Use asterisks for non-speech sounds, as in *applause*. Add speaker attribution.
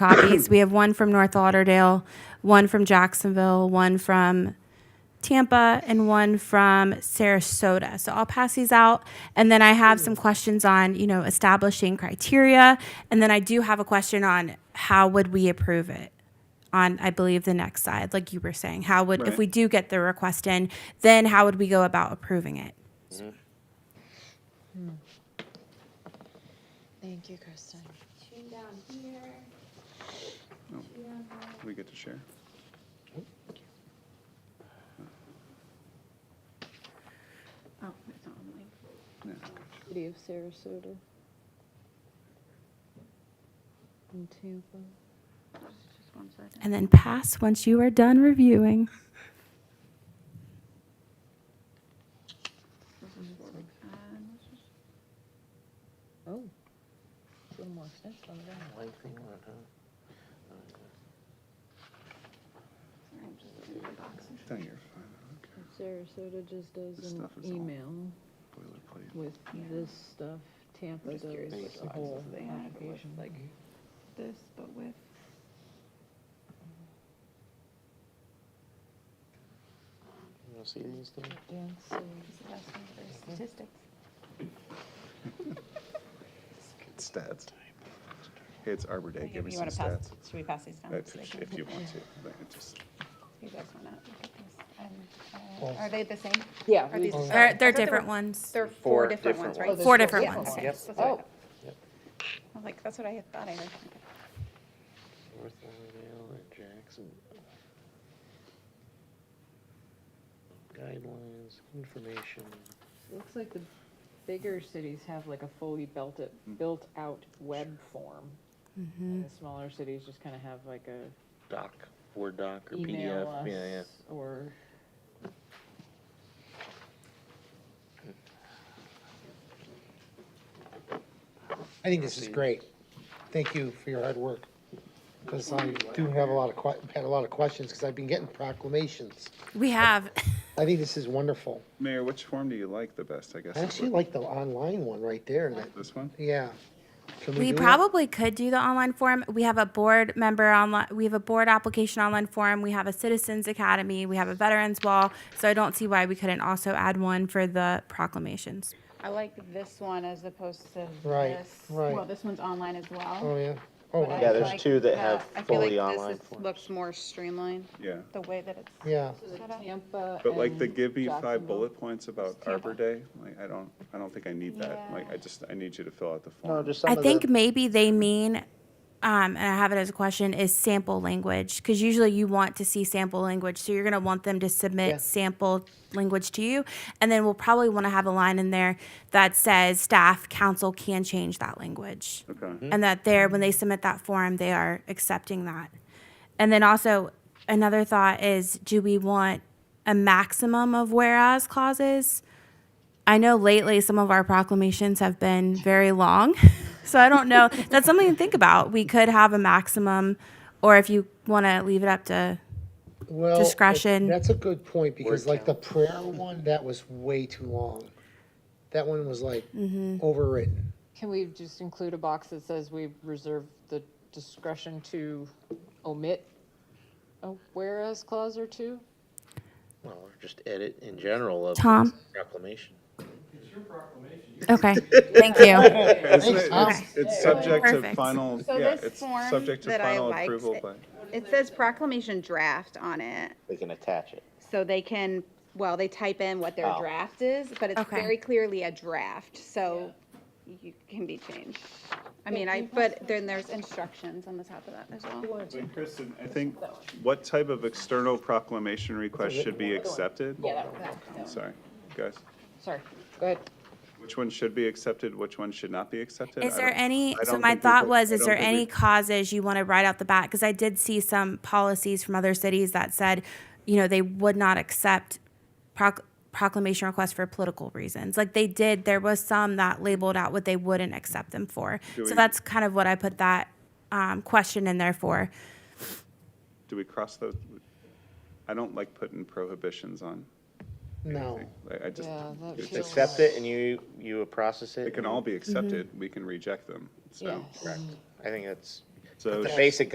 Speaker 1: copies. we have one from North Lauderdale, one from Jacksonville, one from Tampa, and one from Sarasota. So I'll pass these out. And then I have some questions on, you know, establishing criteria. And then I do have a question on how would we approve it? On, I believe, the next side, like you were saying, how would, if
Speaker 2: Right.
Speaker 1: we do get the request in, then how would we go about approving it?
Speaker 3: Thank you, Kristen.
Speaker 2: We get to share.
Speaker 4: Oh, it's not on the link.
Speaker 2: Yeah.
Speaker 3: City of Sarasota. And Tampa.
Speaker 4: Just- just one second.
Speaker 1: And then pass once you are done reviewing.
Speaker 4: This is where we can- this is-
Speaker 3: Oh. It's a little more extensive on the back.
Speaker 4: sorry, I'm just looking at the boxes.
Speaker 2: No, you're fine.
Speaker 3: Sarasota just
Speaker 2: This
Speaker 3: does an
Speaker 2: stuff is all-
Speaker 3: email
Speaker 2: Okay. Boilerplate.
Speaker 3: with this stuff. Tampa
Speaker 4: Just curious
Speaker 3: does
Speaker 4: what
Speaker 3: a
Speaker 4: sizes
Speaker 3: whole
Speaker 4: they have, it was
Speaker 3: application.
Speaker 4: like This, but with.
Speaker 5: You wanna see these things?
Speaker 3: Density.
Speaker 4: Statistics.
Speaker 2: Stats. It's Arbor Day, give me
Speaker 4: You
Speaker 2: some
Speaker 4: want to pass,
Speaker 2: stats.
Speaker 4: should we pass these down?
Speaker 2: That's
Speaker 4: so they
Speaker 2: If
Speaker 4: can-
Speaker 2: if you
Speaker 4: *laughs*
Speaker 2: want to. but it just-
Speaker 4: You guys want to look at these? and, uh, Are they the same?
Speaker 3: Yeah.
Speaker 4: Are
Speaker 3: we-
Speaker 4: these-
Speaker 3: oh,
Speaker 1: They're, they're
Speaker 4: I thought there
Speaker 1: different
Speaker 4: were-
Speaker 1: ones.
Speaker 4: There are
Speaker 5: Four
Speaker 4: four different
Speaker 5: different
Speaker 4: ones, right?
Speaker 3: there's
Speaker 1: Four different
Speaker 4: Yeah,
Speaker 1: ones.
Speaker 4: okay,
Speaker 5: Yep.
Speaker 4: that's what I
Speaker 3: Oh.
Speaker 4: thought.
Speaker 5: Yep.
Speaker 4: I'm like, that's what I had thought I heard.
Speaker 5: North Lauderdale and Jackson. Guidelines, information.
Speaker 3: Looks like the bigger cities have like a fully built it, built out web form. And the smaller cities just kind of have like a
Speaker 5: Doc, Word doc or
Speaker 3: email
Speaker 5: PDF, yeah, yeah.
Speaker 3: us or.
Speaker 6: I think this is great. Thank you for your hard work. Because I do have a lot of, que- had a lot of questions, because I've been getting proclamations.
Speaker 1: We have,
Speaker 6: I think this is wonderful.
Speaker 2: Mayor, which form do you like the best, I guess?
Speaker 6: I
Speaker 2: is
Speaker 6: actually
Speaker 2: what-
Speaker 6: like the online one right there. that-
Speaker 2: This one?
Speaker 6: Yeah. Can
Speaker 1: we
Speaker 6: do that?
Speaker 1: probably could do the online form. We have a board member online, we have a board application online form. We have a citizens academy, we have a veterans wall. So I don't see why we couldn't also add one for the proclamations.
Speaker 4: I like this one as opposed to
Speaker 6: Right,
Speaker 4: this.
Speaker 6: right.
Speaker 4: Well, this one's online as
Speaker 6: Oh,
Speaker 4: well.
Speaker 6: yeah. Oh,
Speaker 4: but I
Speaker 6: wow.
Speaker 5: Yeah, there's
Speaker 4: like
Speaker 5: two that
Speaker 4: the-
Speaker 5: have
Speaker 4: I feel like
Speaker 5: fully
Speaker 4: this
Speaker 5: online
Speaker 4: is-
Speaker 5: forms.
Speaker 4: Looks more streamlined,
Speaker 2: Yeah.
Speaker 4: the way that it's.
Speaker 6: yeah.
Speaker 4: set up.
Speaker 3: Tampa
Speaker 2: But like the
Speaker 4: Um,
Speaker 3: and
Speaker 2: give me five
Speaker 3: Jacksonville.
Speaker 2: bullet points about Arbor Day, like, I don't, I don't think I need that.
Speaker 4: Yeah.
Speaker 2: Like, I just, I need you to fill out the form.
Speaker 5: No, just some
Speaker 1: I
Speaker 5: of the.
Speaker 1: think maybe they mean, um, and I have it as a question, is sample language. Because usually you want to see sample language. So you're going to want them to
Speaker 6: Yeah.
Speaker 1: submit sample language to you. And then we'll probably want to have a line in there that says staff, council can change that language.
Speaker 2: Okay.
Speaker 1: Mm-hmm. and that they're when they submit that form they are accepting that and then also another thought is do we want a maximum of whereas clauses i know lately some of our proclamations have been very long *laughs* so i don't know that's something to think about we could have a maximum or if you want to leave it up to
Speaker 6: Well, it-
Speaker 1: Discretion.
Speaker 6: That's a good point, because like the prayer one, that was way too long. That one was like
Speaker 1: Mm-hmm.
Speaker 6: overwritten.
Speaker 3: Can we just include a box that says we reserve the discretion to omit a whereas clause or two?
Speaker 5: Well, or just edit in general of
Speaker 1: Tom?
Speaker 5: proclamation.
Speaker 1: okay thank you
Speaker 2: Isn't it- It's it's subject to
Speaker 1: Perfect.
Speaker 2: final,
Speaker 4: So
Speaker 2: yeah,
Speaker 4: this
Speaker 2: it's
Speaker 4: form
Speaker 2: subject to
Speaker 4: that I
Speaker 2: final
Speaker 4: liked-
Speaker 2: approval by.
Speaker 4: It says proclamation draft on it,
Speaker 5: They can attach it.
Speaker 4: so they can, well, they type in what their
Speaker 5: Oh.
Speaker 4: draft is, but it's
Speaker 1: Okay.
Speaker 4: very clearly a draft, so you can be changed. I mean, I, but then there's instructions on the top of that as well.
Speaker 2: Wait, Kristen, I think, what type of external proclamation request should be accepted?
Speaker 3: Yeah, that,
Speaker 2: I'm sorry, guys.
Speaker 3: sorry, go ahead.
Speaker 2: Which one should be accepted, which one should not be accepted?
Speaker 1: Is
Speaker 2: I
Speaker 1: there
Speaker 2: don't-
Speaker 1: any,
Speaker 2: I
Speaker 1: so
Speaker 2: don't
Speaker 1: my
Speaker 2: think we
Speaker 1: thought
Speaker 2: put-
Speaker 1: was,
Speaker 2: I
Speaker 1: is
Speaker 2: don't
Speaker 1: there
Speaker 2: think we-
Speaker 1: any causes you want to write out the bat? Because I did see some policies from other cities that said, you know, they would not accept proc- proclamation requests for political reasons. Like they did, there was some that labeled out what they wouldn't accept them for.
Speaker 2: Do we-
Speaker 1: So that's kind of what I put that um, question in there for.
Speaker 2: Do we cross those? I don't like putting prohibitions on.
Speaker 6: No.
Speaker 2: anything. Like, I just,
Speaker 3: Yeah, that
Speaker 2: it's-
Speaker 3: feels-
Speaker 2: it's-
Speaker 5: Accept it and you, you process it.
Speaker 2: they can
Speaker 5: and-
Speaker 2: all be accepted, we can reject them, so.
Speaker 3: Yes.
Speaker 5: Correct. I think that's
Speaker 2: So
Speaker 5: the
Speaker 2: sh-
Speaker 5: basic